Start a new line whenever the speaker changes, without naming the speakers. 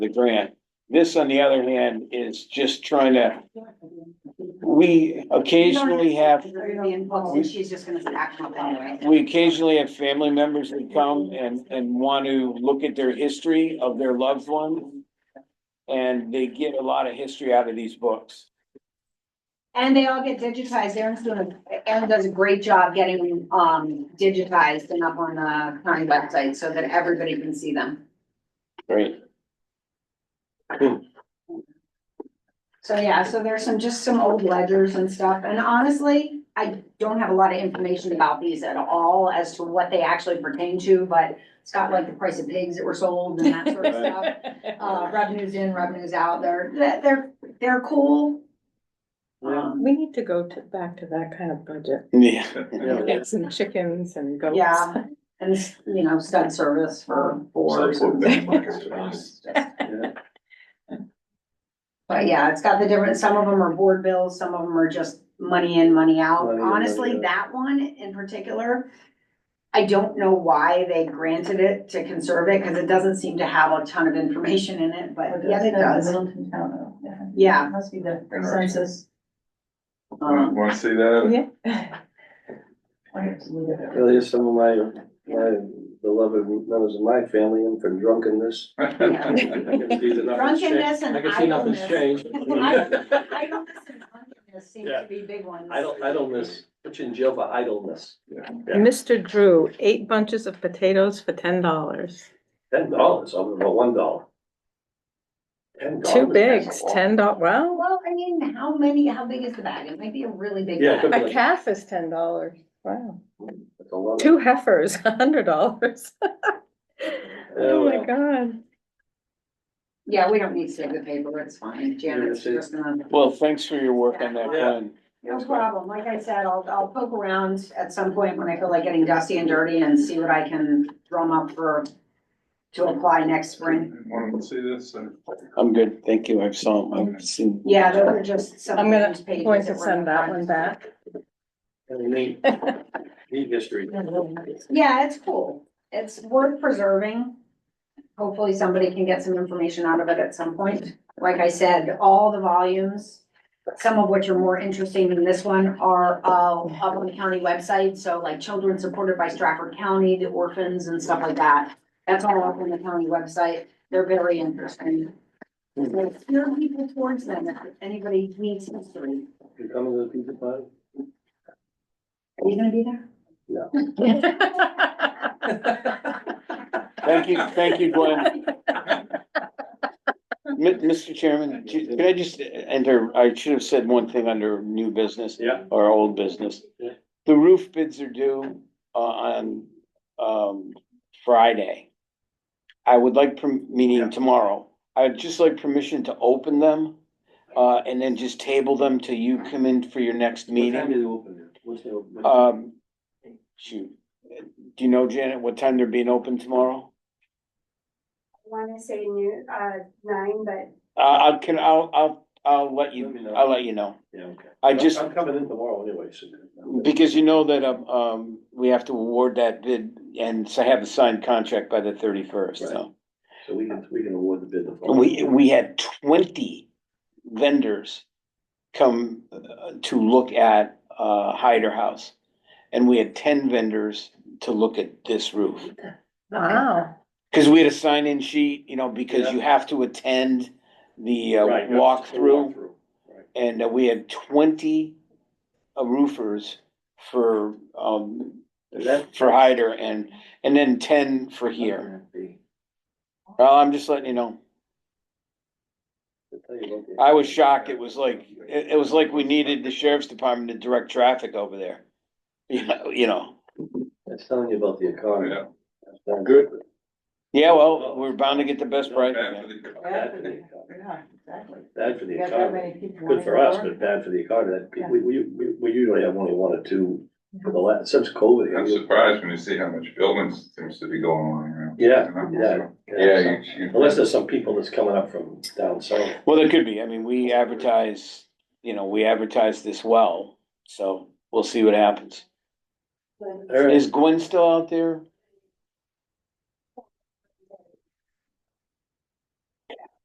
the grant. This, on the other hand, is just trying to, we occasionally have,
Well, She's just gonna stack them up anyway.
we occasionally have family members that come and, and want to look at their history of their loved one. And they get a lot of history out of these books.
And they all get digitized. Aaron's doing, a- Aaron does a great job getting, um, digitized and up on the county website so that everybody can see them.
Great.
So, yeah, so there's some, just some old ledgers and stuff. And honestly, I don't have a lot of information about these at all as to what they actually pertain to, but it's got like the price of pigs that were sold and that sort of stuff. Uh, revenues in, revenues out. They're, they're, they're cool. Um,
We need to go to, back to that kind of budget.
Yeah.
Get some chickens and goats.
Yeah. And, s- you know, stud service for boards.
Some sort of thing like
But yeah, it's got the different, some of them are board bills, some of them are just money in, money out.
Money in, money
Honestly,
out.
that one in particular, I don't know why they granted it to conserve it, because it doesn't seem to have a ton of information in it, but yes, it does.
Littleton Town, oh, yeah.
Yeah.
That must be the
Interesting.
census.
um,
Want to see
Oh,
that?
Yeah.
I have to look at it.
Well, here's some of my, my beloved members of my family in from drunkenness.
Drunkenness and
I can see nothing's
idleness.
changed.
Idleness and drunkenness seem to
Yeah.
be big ones.
Idle, idleness, put you in jail for idleness.
Mr. Drew, eight bunches of potatoes for ten dollars.
Ten dollars, I'm about one dollar. Ten dollars.
Two bigs, ten dollars. well,
Well, I mean, how many, how big is the bag? It might be a really big
Yeah, it
bag.
could be
a
like-
calf is ten dollars. Wow.
That's a lot of-
Two heifers, a hundred dollars. Oh my
well.
god.
Yeah, we don't need to save the paper, it's fine, Janet's
Yeah,
just gonna.
Well, thanks for your work on that one.
No problem, like I said, I'll, I'll poke around at some point when I feel like getting dusty and dirty and see what I can drum up for, to apply next spring.
Want to see this? Uh,
I'm good, thank you, I've saw, I've seen.
Yeah, those are just some.
I'm gonna-
of those pages
Going to
that we're
send that
gonna-
one back.
Kinda Neat, neat history.
Yeah, it's cool, it's worth preserving. Hopefully somebody can get some information out of it at some point. Like I said, all the volumes, some of which are more interesting than this one, are uh up on the county website, so like children supported by Stratford County, the orphans and stuff like that. That's all up on the county website, they're very interesting. Like, steer people towards them, if anybody needs history,
You coming to the pizza party?
are you gonna be there?
Thank you, thank you, Gwen. Mi- Mr. Chairman, j- can I just enter, I should have said one thing under new business
Yeah.
or old business.
Yeah.
The roof bids are due uh, on um Friday. I would like, per- meaning tomorrow, I'd just like permission to open them uh and then just table them till you come in for your next
What time
meeting.
do they open it? What's the- what-
Um, shoot, do you know, Janet, what time they're being open tomorrow?
wanna say new, uh, nine, but
Uh, I can, I'll, I'll, I'll let
Let me
you,
know.
I'll let you know.
Yeah, okay.
I just,
I'm coming in tomorrow anyway, so.
because you know that, um, um, we have to award that bid and so have a signed contract by the thirty-first, so.
So we can, we can award the bid. the following-
We, we had twenty vendors come uh, to look at, uh, Hyder House. And we had ten vendors to look at this roof.
Wow.
Cause we had a sign-in sheet, you know, because
Yeah.
you have to attend the, uh,
Right,
walkthrough.
Right.
And uh, we had twenty uh, roofers for, um,
And that-
for Hyder and, and then ten for here. Well, I'm just letting you know. I was shocked. It was like, it, it was like we needed the sheriff's department to direct traffic over there. You know, you know,
That's telling you about the economy.
Yeah.
That's telling
Good.
you
yeah, well, we're bound to get the best price.
After the-
Bad for the economy.
Yeah, exactly.
Bad for
You
the
got that many
economy.
people
Good for us,
wanting
but
to work.
bad for the economy. That pe- We, we, we- we usually have only one or two for the last, since
I'm
COVID.
surprised when you see how much building seems to be going on around.
Yeah,
You
yeah.
know, so- Yeah, you, you.
Unless there's some people that's coming up from down south.
Well, there could be. I mean, we advertise, you know, we advertise this well, so we'll see what happens.
All right.
Is Gwen still out there?